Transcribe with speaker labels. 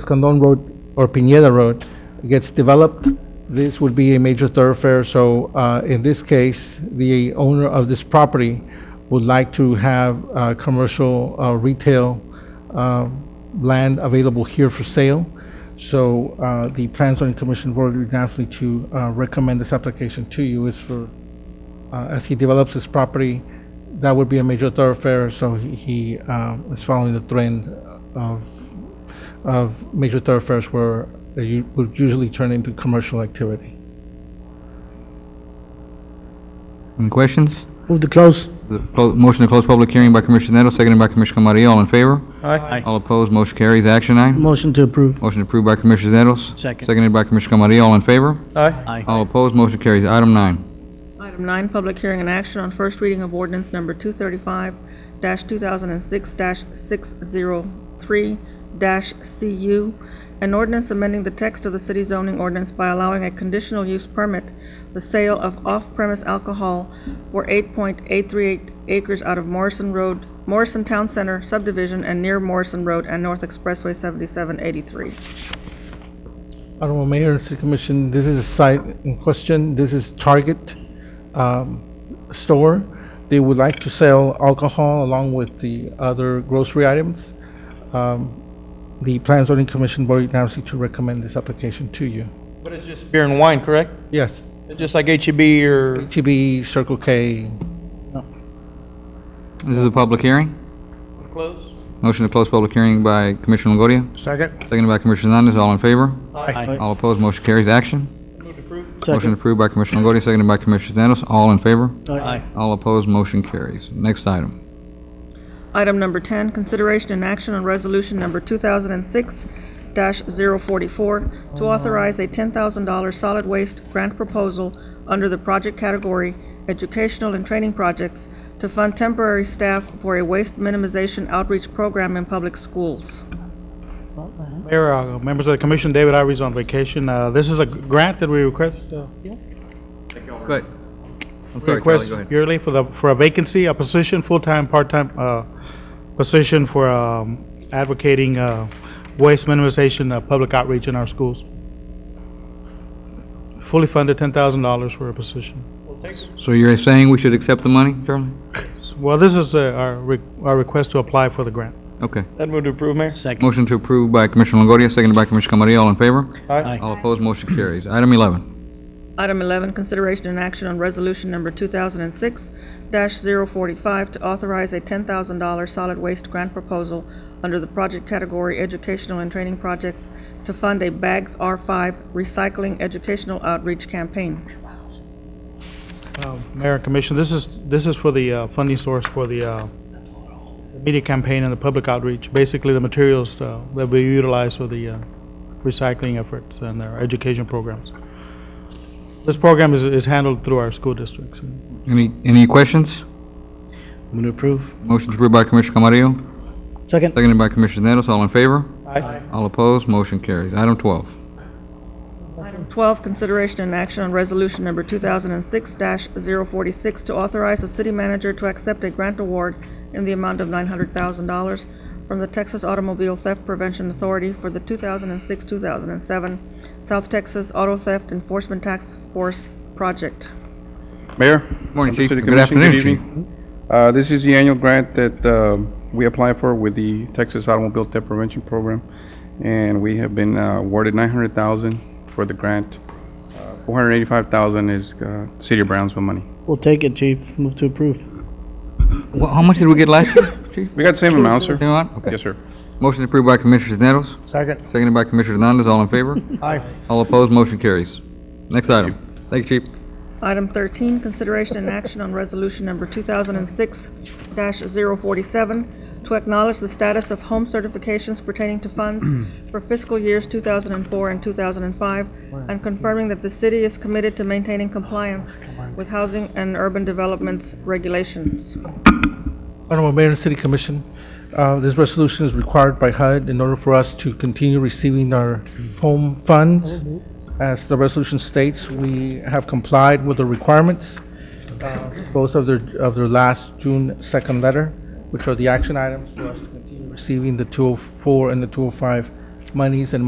Speaker 1: Escandon Road or Piñeda Road gets developed, this would be a major thoroughfare, so uh, in this case, the owner of this property would like to have uh, commercial uh, retail uh, land available here for sale. So uh, the Plan Zoning Commission voted unanimously to uh, recommend this application to you. It's for, uh, as he develops his property, that would be a major thoroughfare, so he- he um, is following the trend of of major thoroughfares where they u- would usually turn into commercial activity.
Speaker 2: Any questions?
Speaker 3: Move to close.
Speaker 2: The clo- Motion to close public hearing by Commissioner Nettles, seconded by Commissioner Camarillo. All in favor?
Speaker 4: Aye.
Speaker 2: All opposed, motion carries. Action item.
Speaker 3: Motion to approve.
Speaker 2: Motion approved by Commissioner Nettles.
Speaker 4: Second.
Speaker 2: Seconded by Commissioner Camarillo. All in favor?
Speaker 4: Aye.
Speaker 2: All opposed, motion carries. Item nine.
Speaker 5: Item nine, public hearing and action on first reading of ordinance number two thirty-five two thousand and six six zero three CU, an ordinance amending the text of the city zoning ordinance by allowing a conditional use permit, the sale of off-premise alcohol for eight point eight three eight acres out of Morrison Road, Morrison Town Center subdivision and near Morrison Road and North Expressway seventy-seven eighty-three.
Speaker 1: Honorable Mayor, City Commission, this is a site in question. This is Target um, store. They would like to sell alcohol along with the other grocery items. Um, The Plan Zoning Commission voted unanimously to recommend this application to you.
Speaker 4: But it's just beer and wine, correct?
Speaker 1: Yes,
Speaker 4: It's just like HEB or...
Speaker 1: HEB, Circle K,
Speaker 2: This is a public hearing.
Speaker 4: Close.
Speaker 2: Motion to close public hearing by Commissioner Longoria.
Speaker 3: Second.
Speaker 2: Seconded by Commissioner Hernandez. All in favor?
Speaker 4: Aye.
Speaker 2: All opposed, motion carries. Action. Motion
Speaker 3: Second.
Speaker 2: approved by Commissioner Longoria, seconded by Commissioner Nettles. All in favor?
Speaker 4: Aye.
Speaker 2: All opposed, motion carries. Next item.
Speaker 5: Item number 10, consideration and action on resolution number 2006-044 to authorize a $10,000 solid waste grant proposal under the project category Educational and Training Projects to fund temporary staff for a waste minimization outreach program in public schools.
Speaker 6: Mayor, uh, members of the commission, David Ivory's on vacation. Uh, This is a g- grant that we request, uh,
Speaker 2: Good. I'm sorry, Kelly,
Speaker 6: request
Speaker 2: go ahead.
Speaker 6: yearly for the, for a vacancy, a position, full-time, part-time uh, position for um, advocating uh, waste minimization, uh, public outreach in our schools. Fully funded, $10,000 for a position.
Speaker 2: So you're saying we should accept the money, Charlie?
Speaker 6: Well, this is uh, our re- our request to apply for the grant.
Speaker 2: Okay.
Speaker 4: That move to approve, Mayor? Second.
Speaker 2: Motion to approve by Commissioner Longoria, seconded by Commissioner Camarillo. All in favor?
Speaker 4: Aye.
Speaker 2: All opposed, motion carries. Item 11.
Speaker 5: Item 11, consideration and action on resolution number 2006-045 to authorize a $10,000 solid waste grant proposal under the project category Educational and Training Projects to fund a Bags R5 Recycling Educational Outreach Campaign.
Speaker 6: Uh, Mayor and Commission, this is, this is for the uh, funding source for the uh, media campaign and the public outreach, basically the materials uh, that we utilize for the uh, recycling efforts and our education programs. This program is, is handled through our school districts.
Speaker 2: Any, any questions?
Speaker 3: Move to approve.
Speaker 2: Motion approved by Commissioner Camarillo,
Speaker 3: Second.
Speaker 2: seconded by Commissioner Nettles. All in favor?
Speaker 4: Aye.
Speaker 2: All opposed, motion carries. Item 12.
Speaker 5: Item 12, consideration and action on resolution number 2006-046 to authorize the city manager to accept a grant award in the amount of $900,000 from the Texas Automobile Theft Prevention Authority for the 2006-2007 South Texas Auto Theft Enforcement Task Force Project.
Speaker 7: Mayor?
Speaker 2: Morning,
Speaker 7: members
Speaker 2: Chief.
Speaker 7: of the
Speaker 2: Good
Speaker 7: commission,
Speaker 2: afternoon,
Speaker 7: evening. Uh, This is the annual grant that um, we apply for with the Texas Automobile Theft Prevention Program, and we have been uh, awarded 900000 for the grant. Uh, 485000 is uh, City of Brownsville money.
Speaker 3: We'll take it, chief. Move to approve.
Speaker 2: Wha- How much did we get last year, Chief?
Speaker 7: We got the same amount, sir?
Speaker 2: Same amount? Okay.
Speaker 7: Yes, sir.
Speaker 2: Motion approved by Commissioner Nettles,
Speaker 3: Second.
Speaker 2: seconded by Commissioner Hernandez. All in favor?
Speaker 3: Aye.
Speaker 2: All opposed, motion carries. Next item. Thank you, Chief.
Speaker 5: Item 13, consideration and action on resolution number 2006-047 to acknowledge the status of home certifications pertaining to funds for fiscal years 2004 and 2005, and confirming that the city is committed to maintaining compliance with housing and urban developments regulations.
Speaker 1: Honorable Mayor and City Commission, uh, this resolution is required by HUD in order for us to continue receiving our home funds. As the resolution states, we have complied with the requirements, uh, both of their, of their last June oh 2nd letter, which are the action items for us to continue receiving the 204 and the 205 monies and